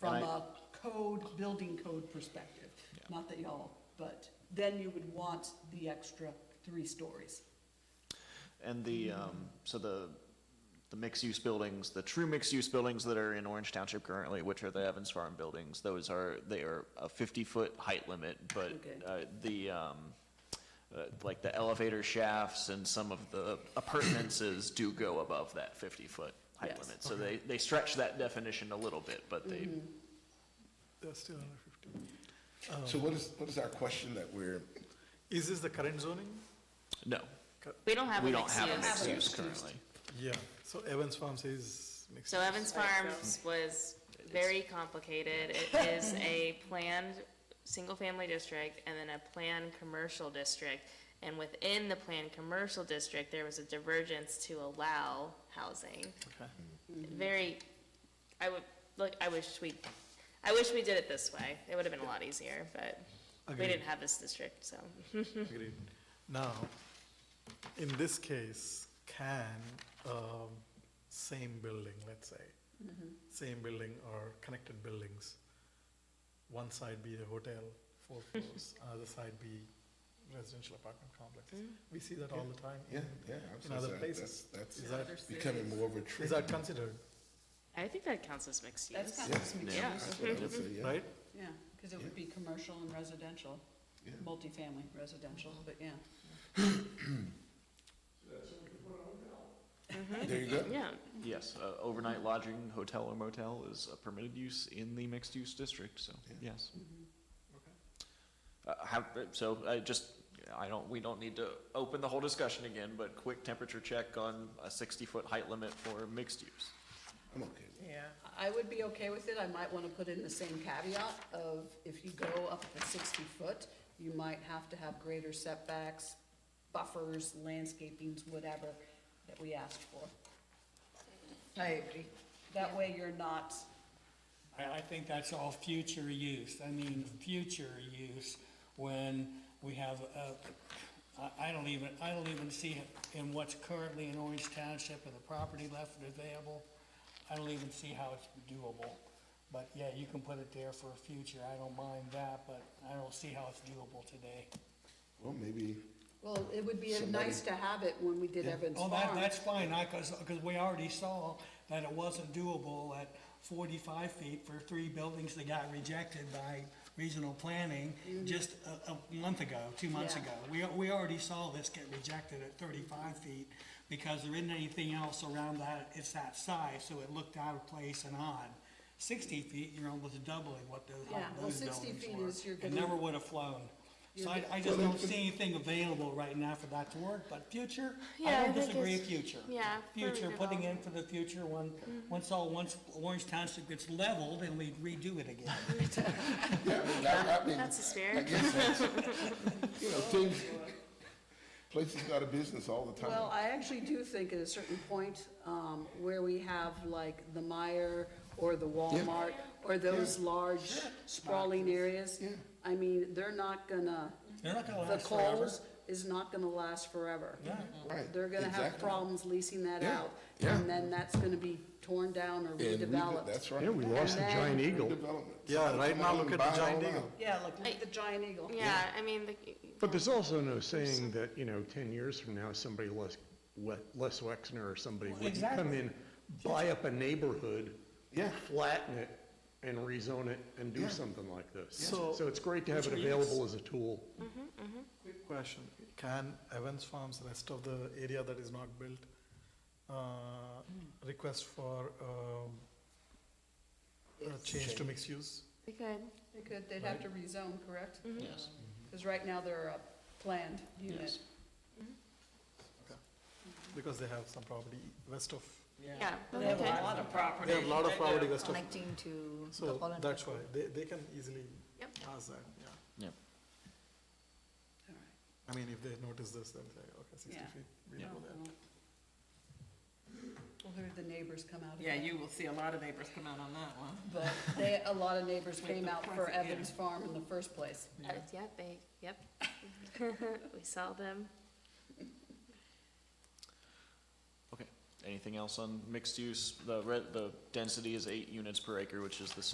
from And I- a code, building code perspective. Not that y'all, but then you would want the extra three stories. And the, um, so the, the mixed-use buildings, the true mixed-use buildings that are in Orange Township currently, which are the Evans Farm buildings, those are, they are a fifty-foot height limit, but, Okay. uh, the, um, uh, like the elevator shafts and some of the appurtenances do go above that fifty-foot height Yes. limit. So they, they stretch that definition a little bit, but they, That's still under fifty. So what is, what is our question that we're, Is this the current zoning? no, We don't have a we don't mixed have a use. mixed-use currently. Yeah, so Evans Farms is mixed. So Evans Farms was very complicated. It is a planned, single-family district and then a planned commercial district. And within the planned commercial district, there was a divergence to allow housing. Okay. Hmm. Very, I would, look, I wish we, I wish we did it this way. It would have been a lot easier, but we Agreed. didn't have this district, so. Agreed. Now, in this case, can, um, same building, let's say, Mm-hmm. same building or connected buildings, one side be a hotel, four floors, another side be residential apartment complex? Mm. We see that all the time. yeah, in- yeah. I was In gonna other say, places. That's Is that's that, becoming more of a is trend. that considered, I think that counts as mixed use. That's kind Yeah. of some Yeah. use. That's what I would say, yeah. right? Yeah, because it would be commercial and residential, Yeah. multifamily residential, Mm-hmm. but yeah. There you go. Yeah, Yes, uh, overnight lodging, hotel or motel is a permitted use in the mixed-use district, so, yes. Uh, how, so, I just, I don't, we don't need to open the whole discussion again, but quick temperature check on a sixty-foot height limit for mixed use. I'm okay. Yeah. I would be okay with it, I might wanna put in the same caveat of if you go up to sixty foot, you might have to have greater setbacks, buffers, landscapings, whatever that we asked for. I agree. That way you're not, I, I think that's all future use, I mean, future use, when we have, uh, I, I don't even, I don't even see it in what's currently in Orange Township and the property left available, I don't even see how it's doable. But yeah, you can put it there for future, I don't mind that, but I don't see how it's doable today. Well, maybe, well, it would be Somebody- nice to have it when we did Evans Oh, that, Farm. that's fine, I, cause, 'cause we already saw that it wasn't doable at forty-five feet for three buildings that got rejected by regional planning just a, a month ago, two months Mm-hmm. Yeah. ago. We, we already saw this get rejected at thirty-five feet because there isn't anything else around that, it's that size, so it looked out of place and odd. Sixty feet, you're almost doubling what those, Yeah, well, those 60 buildings feet were. is you're It gonna- never would have flown. So You're I, gonna- I just don't see anything available right now for that to work, but future, Yeah, I I don't think disagree, it's- future. yeah, Future, further putting in for the future, when, Mm-hmm. once all, once Orange Township gets leveled and we redo it again. yeah, I mean, I, I mean, that's the I spirit. guess that's, you know, things, places go out of business all the time. Well, I actually do think at a certain point, um, where we have like the Meyer or the Walmart or those large sprawling areas. I mean, they're not gonna, They're not gonna the last forever. Kohl's is not gonna last forever. Right, They're gonna have exactly. problems leasing that Yeah, out, yeah. and then that's gonna be torn down or And we did- redeveloped. That's right. Yeah, we lost the then- giant eagle. Redevelopment. Yeah, right Come now on look and at buy the it giant all eagle. out. Yeah, like, look at the giant eagle. Yeah, I mean, the. But there's also no saying that, you know, ten years from now, somebody less, Le- Les Wexner or somebody would come exactly. in, buy up a neighborhood, Yeah. flatten it, and rezone it, and do something like this. So- So it's great to have it available as a tool. Quick question, can Evans Farms, rest of the area that is not built, uh, request for, um, a change to mixed use? They could. They could, they'd have to rezone, correct? Mm-hmm. Yes. Because right now they're a planned unit. Yes. Because they have some property west of, Yeah, okay. of property. They have a lot of property west of- Connecting to the so Holland. that's why, they, they can easily Yep. ask that, yeah. Yep. All right. I mean, if they notice this, they'll say, okay, sixty Yeah. feet, we Yeah. know that. Oh, Well, who did the neighbors come out? Yeah, about? you will see a lot of neighbors come out on that one. But they, a lot of neighbors With came the out for profit, yeah. Evans Farm in the first place. Uh, Yeah, they, yep. We saw them. Okay, anything else on mixed use? The red, the density is eight units per acre, which is the same